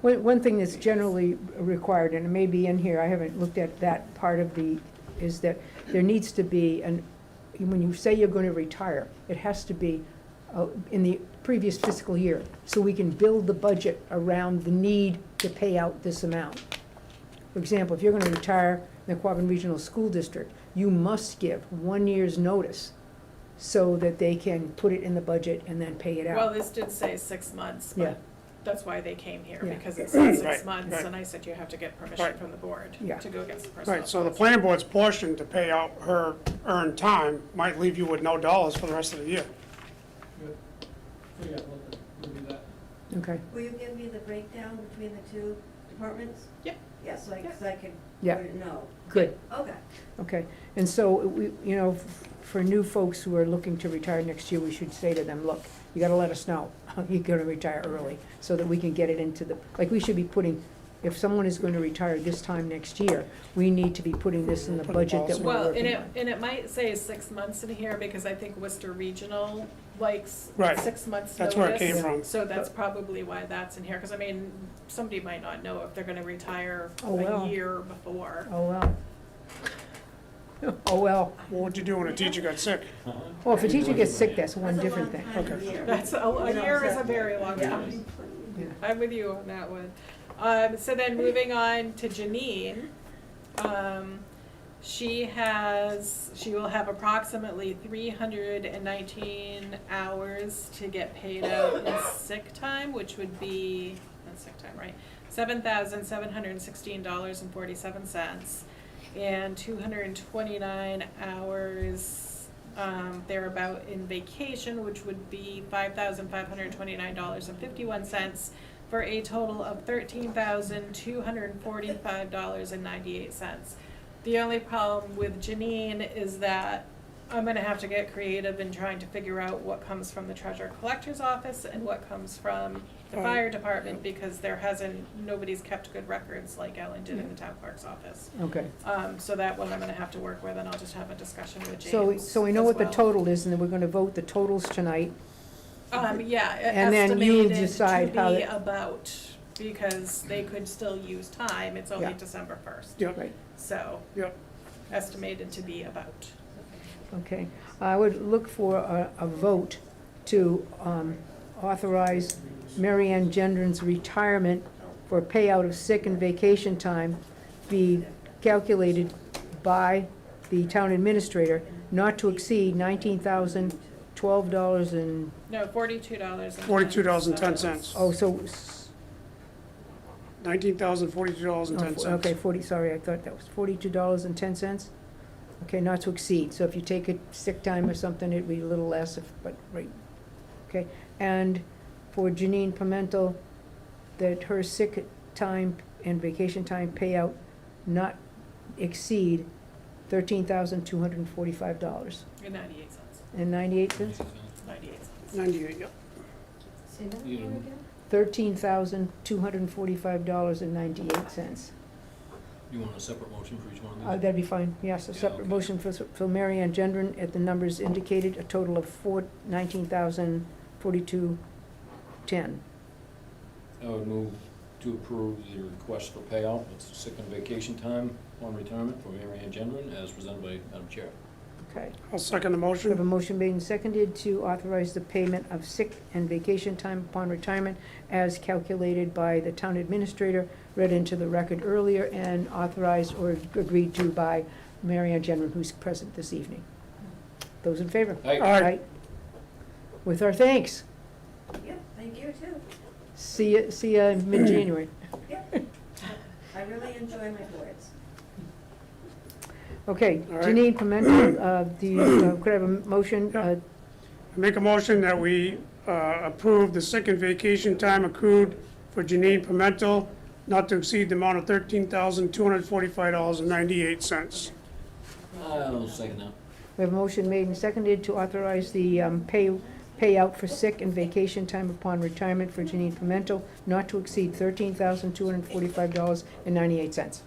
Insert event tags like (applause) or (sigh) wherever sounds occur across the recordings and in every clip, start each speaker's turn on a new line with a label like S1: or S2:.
S1: One, one thing that's generally required, and it may be in here, I haven't looked at that part of the, is that there needs to be an, when you say you're gonna retire, it has to be uh, in the previous fiscal year, so we can build the budget around the need to pay out this amount. For example, if you're gonna retire in the Quabbin Regional School District, you must give one year's notice so that they can put it in the budget and then pay it out.
S2: Well, this did say six months,
S1: Yeah.
S2: but that's why they came here,
S1: Yeah.
S2: because
S3: (clears throat)
S2: it said six
S3: Right,
S2: months,
S3: right.
S2: and I said you have to get permission
S3: Right.
S2: from the board
S1: Yeah.
S2: to go against the personnel.
S3: Right, so the planning board's portion to pay out her earned time might leave you with no dollars for the rest of the year.
S4: So, yeah, we'll, we'll do that.
S1: Okay,
S5: Will you give me the breakdown between the two departments?
S2: Yeah.
S5: Yes, so I, so I can,
S1: Yeah.
S5: no,
S1: good.
S5: okay.
S1: Okay, and so, we, you know, f- for new folks who are looking to retire next year, we should say to them, look, you gotta let us know, (laughs) you're gonna retire early, so that we can get it into the, like, we should be putting, if someone is gonna retire this time next year, we need to be putting this in the
S3: Put a
S1: budget that
S3: policy.
S1: we're
S2: Well, and
S1: working
S2: it,
S1: on.
S2: and it might say six months in here, because I think Worcester Regional likes
S3: Right.
S2: six months notice.
S3: That's where it came from.
S2: So that's probably why that's in here, because I mean, somebody might not know if they're gonna retire
S1: Oh, well.
S2: a year before.
S1: Oh, well. (laughs) Oh, well,
S3: What would you do when a teacher got sick?
S1: well, if a teacher gets sick, that's one
S5: That's a
S1: different
S5: long
S1: thing.
S5: time
S3: Okay.
S5: here.
S2: That's, a a
S5: No,
S2: year is a
S5: exactly.
S2: very long
S5: Yeah.
S2: time.
S1: Yeah.
S2: (laughs) I'm with you on that one. Um, so then moving on to Janine, um, she has, she will have approximately three hundred and nineteen hours to get paid out in sick time, which would be, that's sick time, right? Seven thousand seven hundred and sixteen dollars and forty-seven cents, and two hundred and twenty-nine hours, um, thereabout in vacation, which would be five thousand five hundred twenty-nine dollars and fifty-one cents, for a total of thirteen thousand two hundred and forty-five dollars and ninety-eight cents. The only problem with Janine is that I'm gonna have to get creative in trying to figure out what comes from the treasurer collector's office and what comes from the
S3: Right.
S2: fire department, because there hasn't, nobody's kept good records like Ellen did in the town clerk's office.
S1: Okay,
S2: Um, so that one I'm gonna have to work with, and I'll just have a discussion with James
S1: so, so we know
S2: as
S1: what the
S2: well.
S1: total is, and then we're gonna vote the totals tonight,
S2: Um, yeah,
S1: And then you
S2: estimated to
S1: decide how
S2: be
S1: it-
S2: about, because they could still use time, it's only
S1: Yeah.
S2: December first,
S3: Yep,
S1: right?
S2: so
S3: yep.
S2: estimated to be about.
S1: Okay, I would look for a, a vote to um, authorize Mary Ann Gendron's retirement for payout of sick and vacation time be calculated by the town administrator not to exceed nineteen thousand twelve dollars and,
S2: No, forty-two dollars and
S3: $42.10.
S1: oh, so, s-
S3: $19,042.10.
S1: oh, okay, forty, sorry, I thought that was forty-two dollars and ten cents? Okay, not to exceed, so if you take a sick time or something, it'd be a little less, if, but, right, okay. And for Janine Pimental, that her sick time and vacation time payout not exceed thirteen thousand two hundred and forty-five dollars
S2: And ninety-eight cents,
S1: and ninety-eight cents?
S2: ninety-eight cents.
S3: 98, yep.
S5: Say that
S4: You-
S5: one again?
S1: Thirteen thousand two hundred and forty-five dollars and ninety-eight cents.
S4: You want a separate motion for each one of
S1: Uh,
S4: these?
S1: that'd be fine, yes, a
S4: Yeah,
S1: separate
S4: okay.
S1: motion for, for Mary Ann Gendron at the numbers indicated, a total of four, nineteen thousand, forty-two, ten.
S6: I would move to approve the request for payout, it's sick and vacation time upon retirement for Mary Ann Gendron, as presented by Madam Chair.
S1: Okay,
S3: I'll second the
S1: we have a
S3: motion.
S1: motion made and seconded to authorize the payment of sick and vacation time upon retirement as calculated by the town administrator, read into the record earlier, and authorized or agreed to by Mary Ann Gendron, who's present this evening. Those in favor?
S3: All
S6: Aye.
S3: right,
S1: Aye. With our thanks,
S5: Yeah, thank you too.
S1: see ya, see ya in mid-January.
S5: I really enjoy my boards.
S1: Okay,
S3: All right.
S1: Janine
S3: (clears throat)
S1: Pimental, uh, the, uh, could I have a motion?
S3: Yeah.
S1: Uh,
S3: make a motion that we uh, approve the sick and vacation time accrued for Janine Pimental not to exceed the amount of $13,245.98.
S6: I'll second that.
S1: We have a motion made and seconded to authorize the um, pay payout for sick and vacation time upon retirement for Janine Pimental not to exceed $13,245.98.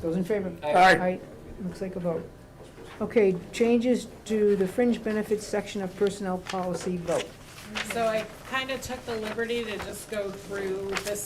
S1: Those in favor?
S3: All right,
S1: Aye. Looks like a vote. Okay, changes to the fringe benefits section of personnel policy vote.
S2: So I kinda took the liberty to just go through this